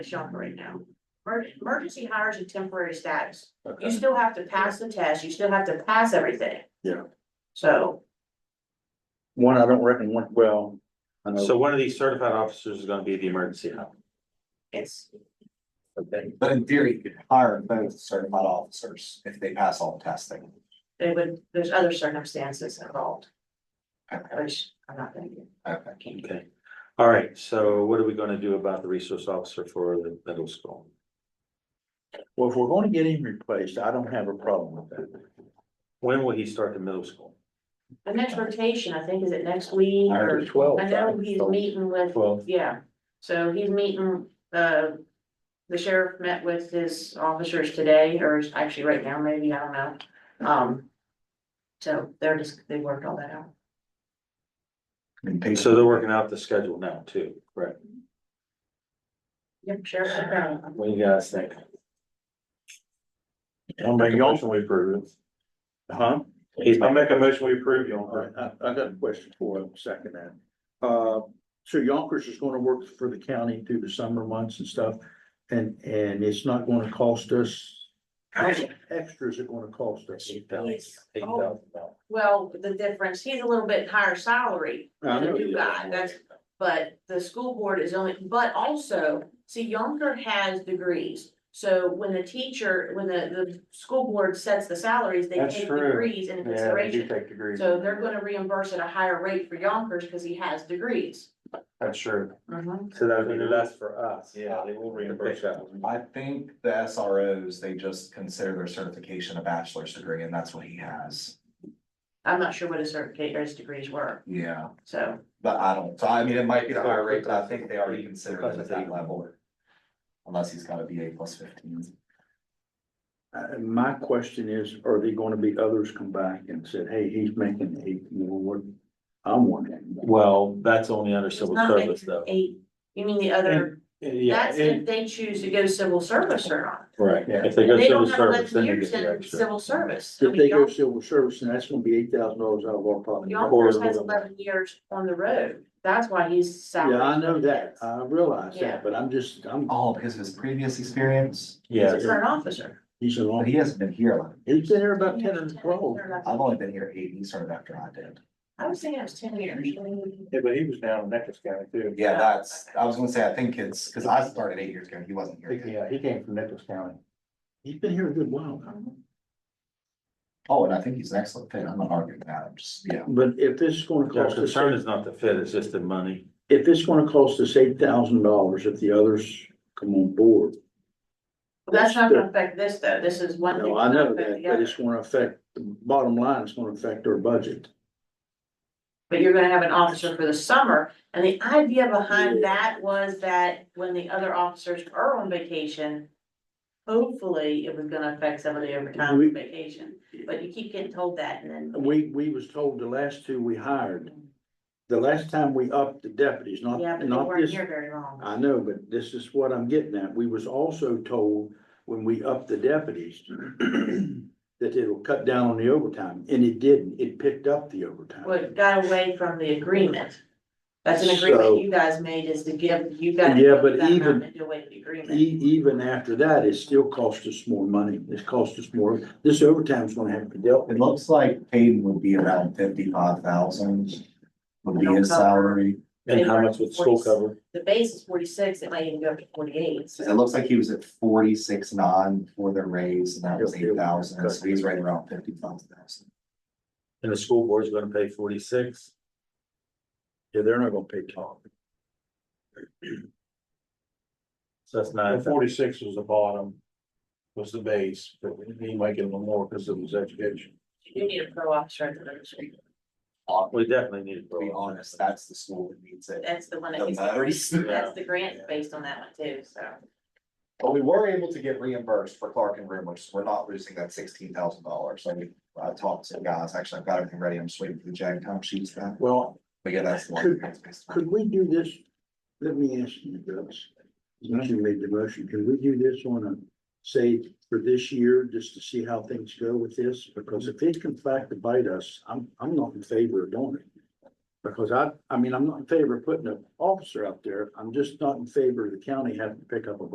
a shelter right now. Emer- Emergency hires a temporary status. You Okay, still have to pass the test, you still have to pass everything. Yeah. So, One, I don't reckon, one, well, I know, Uh, so one of these certified officers is gonna be the emergency help. it's, Okay. But in theory, you could hire both certified officers if they pass all the testing. they would, there's other circumstances involved, Okay, which I'm not gonna get. okay. Okay, all right, so what are we gonna do about the resource officer for the middle school? well, if we're gonna get him replaced, I don't have a problem with that. When will he start the middle school? The next rotation, I think, is it next week I or, heard twelve. I know he's meeting with, Well, yeah, so he's meeting, uh. The sheriff met with his officers today, or actually right now, maybe, I don't know, um. So they're just, they worked all that out. And pay- so they're working out the schedule now too, right? Yep, Sheriff Brown. What do you guys think? I'll make a motion we approve. Huh? He's, I'll making- make a motion, we approve All right, I, I got a question for him, second that. Uh, so Yonkers is gonna work for the county through the summer months and stuff, and, and it's not gonna cost us. How much extra is it gonna cost us? Eight thousand. Yes. eight thousand dollars. Oh, Well, the difference, he's a little bit higher salary than the new guy, that's, but the school board is only, but also, see, Yonker has degrees. So when the teacher, when the, the school board sets the salaries, they That's take true. degrees into Yeah, they do consideration. take degrees, So they're gonna reimburse at a higher rate for Yonkers because he has degrees. that's true, Mhm. so that would be less for us. Yeah, they will reimburse that. I think the SROs, they just consider their certification a bachelor's degree and that's what he has. I'm not sure what his certificate, or his degrees were, Yeah, so, but I don't, so I mean, it might be the higher rate, but I think they already consider it at that level. Unless he's got a BA plus fifteen. Uh, my question is, are there gonna be others come back and said, hey, he's making eight more, what, I'm wanting. Well, that's only under it's civil not like service though. eight, you mean the other, Yeah, that's if they choose to go civil service or not. right, Yeah. if they go And They civil don't have service, eleven then they get years the in extra. civil service. I If mean, they go y'all- civil service, and that's gonna be eight thousand dollars out of our pocket. Y'all Or a first has little- eleven years on the road, that's why he's salary. Yeah, I know that, I realize Yeah. that, but I'm just, I'm, Oh, because of his previous experience, Yeah, He's a current officer. he's an but officer, he hasn't been here. like- he's been here about ten and twelve. I've only been here eight, he started after I did. I was thinking it was ten years. Yeah, but he was down in Necklace County too. Yeah, that's, I was gonna say, I think it's, because I started eight years ago, and he wasn't here. yet. he came from Necklace County. He's been here a good while now. Oh, and I think he's an excellent fit. I'm not arguing that. I'm just, yeah. But if this is gonna The cost us, concern is not the fit, it's just the money. if it's gonna cost us eight thousand dollars, if the others come on board. That's not gonna affect this though, this is one. thing No, I that's not know that, affecting the but it's other. gonna affect, the bottom line, it's gonna affect our budget. But you're gonna have an officer for the summer, and the idea behind that was that when the other officers are on vacation. Hopefully, it was gonna affect some of the overtime We- vacation, but you keep getting told that and then. We, we was told the last two we hired, the last time we upped the deputies, not, Yeah, but they not weren't this here very long. I know, but this is what I'm getting at. We was also told when we upped the deputies that it'll cut down on the overtime, and it didn't. It picked up the what overtime. got away from the agreement. That's an So- agreement you guys made is to give, you guys. Yeah, but that amount even- and Do away with the agreement. E- even after that, it still cost us more money. It's cost us more. This overtime's gonna have to be It dealt with. looks like Caden would be around fifty-five thousand. Would be his salary. And how much would school cover? The base is forty-six, it might even go up to forty-eight, so. It looks like he was at forty-six nine for the raise and that was eight thousand. So he's right around fifty-five thousand. And the school board's gonna pay forty-six? Yeah, they're not gonna pay top. So that's nine. Forty-six was the bottom, was the base, but he might get a little more because it was education. You need a pro officer at the middle school. We definitely need To be to. honest, that's the school that needs it. That's the one that The he's, most. that's the grant based on that one too, so. But we were able to get reimbursed for Clark and Rumor, so we're not losing that sixteen thousand dollars. I mean, I talked to the guys, actually, I've got everything ready. I'm just waiting for the Jag time sheets back. Well, But yeah, that's the one. could we do this? Let me ask you, Douglas. Since You made the motion. Can we do this on a, say, for this year, just to see how things go with this? Because if it can fact to bite us, I'm, I'm not in favor of doing it. Because I, I mean, I'm not in favor of putting an officer out there. I'm just not in favor of the county having to pick up a